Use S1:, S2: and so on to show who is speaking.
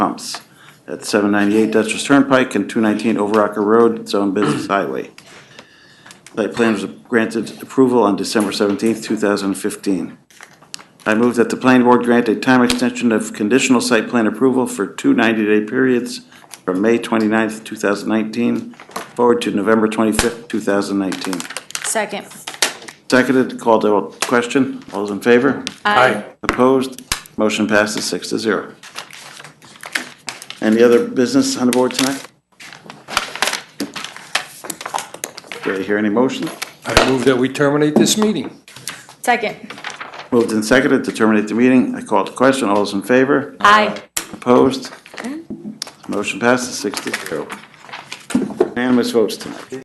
S1: pumps at seven ninety-eight Dutchess Turnpike and two nineteen Overocker Road, Zone Business Highway. Site plan was granted approval on December seventeenth, two thousand and fifteen. I move that the planning board grant a time extension of conditional site plan approval for two 90-day periods from May 29th, 2019, forward to November 25th, 2019.
S2: Second.
S1: Seconded, called to a question. All those in favor?
S2: Aye.
S1: Opposed? Motion passes six to zero. Any other business on the board tonight? Do I hear any motion?
S3: I move that we terminate this meeting.
S2: Second.
S1: Moved and seconded to terminate the meeting. I called the question. All those in favor?
S2: Aye.
S1: Opposed? Motion passes six to zero. Unanimous votes tonight.